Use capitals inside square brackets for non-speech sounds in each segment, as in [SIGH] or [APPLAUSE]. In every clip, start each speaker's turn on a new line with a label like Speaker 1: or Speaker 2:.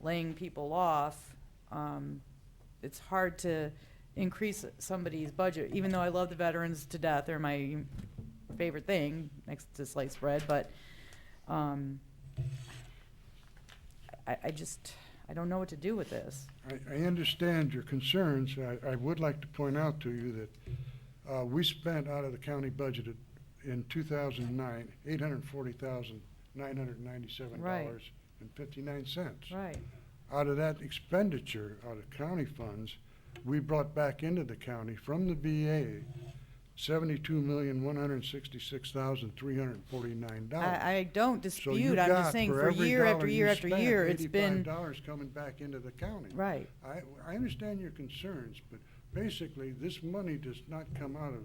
Speaker 1: laying people off, um, it's hard to increase somebody's budget, even though I love the veterans to death, they're my favorite thing, next to sliced bread, but, um, I, I just, I don't know what to do with this.
Speaker 2: I, I understand your concerns. I, I would like to point out to you that, uh, we spent out of the county budget in two thousand and nine, eight hundred and forty thousand, nine hundred and ninety-seven dollars and fifty-nine cents.
Speaker 1: Right,
Speaker 2: Out of that expenditure, out of county funds, we brought back into the county from the VA seventy-two million, one hundred and sixty-six thousand, three hundred and forty-nine
Speaker 1: I,
Speaker 2: dollars.
Speaker 1: I don't
Speaker 2: So
Speaker 1: dispute,
Speaker 2: you
Speaker 1: I'm just
Speaker 2: got
Speaker 1: saying,
Speaker 2: for
Speaker 1: for
Speaker 2: every
Speaker 1: year after
Speaker 2: dollar you
Speaker 1: year after
Speaker 2: spent,
Speaker 1: year, it's been,
Speaker 2: $85 coming back into the county.
Speaker 1: right,
Speaker 2: I, I understand your concerns, but basically, this money does not come out of,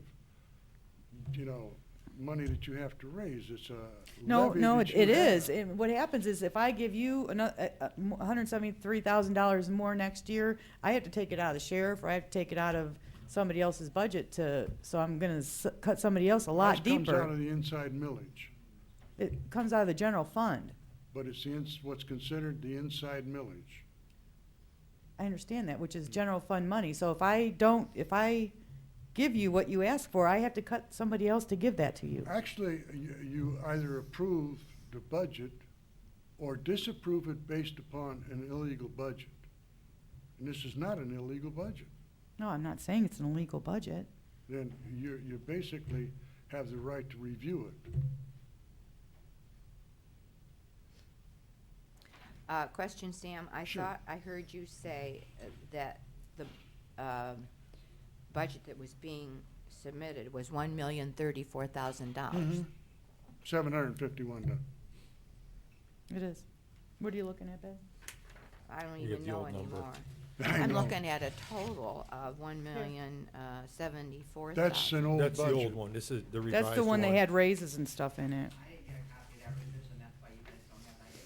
Speaker 2: you know, money that you have to raise, it's a
Speaker 1: no,
Speaker 2: levy
Speaker 1: no,
Speaker 2: that
Speaker 1: it,
Speaker 2: you
Speaker 1: it is,
Speaker 2: have.
Speaker 1: and what happens is if I give you uh, another, hundred and seventy-three thousand dollars more next year, I have to take it out of the sheriff, or I have to take it out of somebody else's budget to, so I'm gonna s- cut somebody else a lot
Speaker 2: This comes out
Speaker 1: deeper.
Speaker 2: of the inside millage,
Speaker 1: It comes out of the general fund,
Speaker 2: but it's the, ins- what's considered the inside millage.
Speaker 1: I understand that, which is general fund money, so if I don't, if I give you what you ask for, I have to cut somebody else to give that to you.
Speaker 2: Actually, you, you either approve the budget or disapprove it based upon an illegal budget. And this is not an illegal budget.
Speaker 1: No, I'm not saying it's an illegal budget.
Speaker 2: Then you, you basically have the right to review it.
Speaker 3: Uh, question, Sam. I
Speaker 2: Sure.
Speaker 3: thought I heard you say uh, that the, um, budget that was being submitted was one million thirty-four thousand dollars.
Speaker 2: Mm-hmm. Seven hundred and fifty-one,
Speaker 1: It is. What are you looking at, Ben?
Speaker 3: I don't
Speaker 4: You get
Speaker 3: even
Speaker 4: the
Speaker 3: know
Speaker 4: old number. [LAUGHS]
Speaker 3: anymore.
Speaker 2: I
Speaker 3: I'm
Speaker 2: know.
Speaker 3: looking at a total of one million, uh, seventy-four thousand.
Speaker 2: That's an old budget.
Speaker 4: That's the old one, this is the revised one.
Speaker 1: That's the one that had raises and stuff in it.
Speaker 5: I didn't get a copy of that revision, that's why you guys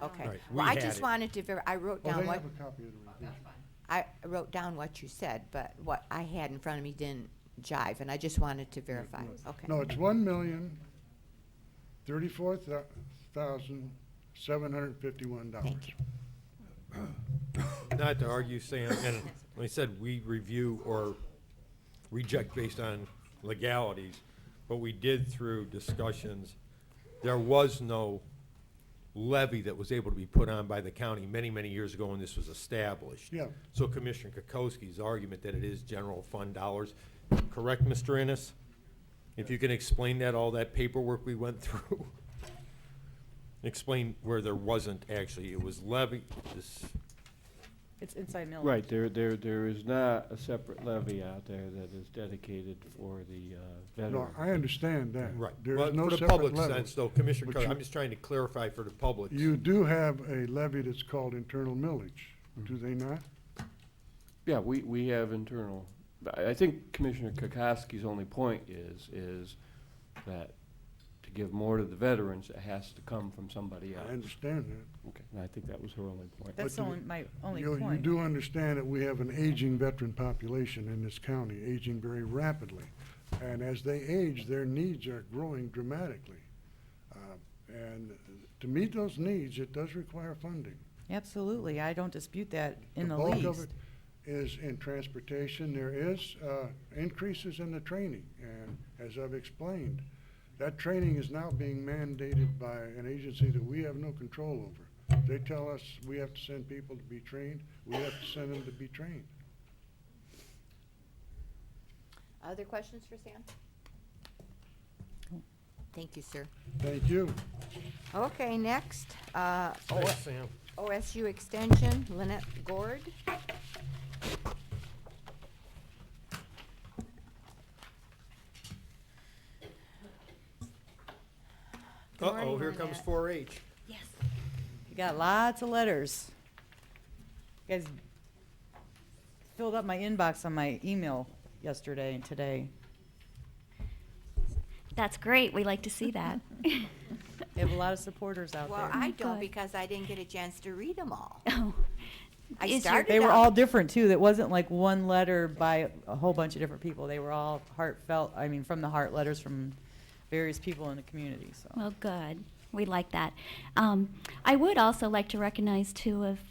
Speaker 5: don't have that.
Speaker 3: Okay.
Speaker 4: Right,
Speaker 3: Well,
Speaker 4: we
Speaker 3: I
Speaker 4: had
Speaker 3: just
Speaker 4: it.
Speaker 3: wanted to, ver- I wrote
Speaker 2: Oh,
Speaker 3: down
Speaker 2: they
Speaker 3: what, Uh-huh.
Speaker 2: have a copy of the revision.
Speaker 3: I wrote down what you said, but what I had in front of me didn't jive, and I just wanted to verify. Okay.
Speaker 2: No, it's one million, thirty-four thousand, seven hundred and fifty-one dollars.
Speaker 3: Thank you.
Speaker 4: Not to argue, Sam, and when he said we review or reject based on legalities, but we did through discussions, there was no levy that was able to be put on by the county many, many years ago when this was established.
Speaker 2: Yeah.
Speaker 4: So Commissioner Kokoski's argument that it is general fund dollars, correct, Mr. Ennis? If you can explain that, all that paperwork we went [LAUGHS] through, explain where there wasn't actually, it was levy, this,
Speaker 1: It's inside millage.
Speaker 6: Right, there, there, there is not a separate levy out there that is dedicated for the uh,
Speaker 2: No,
Speaker 6: veteran.
Speaker 2: I understand that.
Speaker 4: Right.
Speaker 2: There
Speaker 4: Well,
Speaker 2: is no
Speaker 4: For the
Speaker 2: separate
Speaker 4: public
Speaker 2: levy.
Speaker 4: sense, though, Commissioner,
Speaker 2: But
Speaker 4: Cook,
Speaker 2: you-
Speaker 4: I'm just trying to clarify for the public.
Speaker 2: You do have a levy that's called internal millage, do they not?
Speaker 6: Yeah, we, we have internal, I, I think Commissioner Kokoski's only point is, is that to give more to the veterans, it has to come from somebody else.
Speaker 2: I understand that.
Speaker 6: Okay, and I think that was her only point.
Speaker 1: That's the
Speaker 2: But do-
Speaker 1: only, my only
Speaker 2: You, you
Speaker 1: point.
Speaker 2: do understand that we have an aging veteran population in this county, aging very rapidly. And as they age, their needs are growing dramatically. Uh, And to meet those needs, it does require funding.
Speaker 1: Absolutely, I don't dispute that in the
Speaker 2: bulk of
Speaker 1: least.
Speaker 2: it Is in transportation, there is, uh, increases in the training, and as I've explained, that training is now being mandated by an agency that we have no control over. They tell us we have to send people to be trained, we have to send them to be trained.
Speaker 3: Other questions for Sam? Thank you, sir.
Speaker 2: Thank you.
Speaker 3: Okay, next, uh, O-
Speaker 4: Thanks, Sam.
Speaker 3: OSU Extension, Lynette Gord. Good
Speaker 4: Uh-oh,
Speaker 3: morning,
Speaker 4: here comes
Speaker 3: Lynette.
Speaker 4: 4H.
Speaker 1: You got lots of letters. You guys filled up my inbox on my email yesterday and today.
Speaker 7: That's great. We like to see that.
Speaker 1: You have a lot of supporters out
Speaker 3: Well,
Speaker 1: there.
Speaker 3: I don't
Speaker 7: Good.
Speaker 3: because I didn't get a chance to read them all.
Speaker 7: Oh.
Speaker 3: I
Speaker 7: Is your-
Speaker 3: started
Speaker 1: They were
Speaker 3: out-
Speaker 1: all different, too. That wasn't like one letter by a whole bunch of different people. They were all heartfelt, I mean, from the heart, letters from various people in the community, so.
Speaker 7: Well, good. We like that. Um, I would also like to recognize two of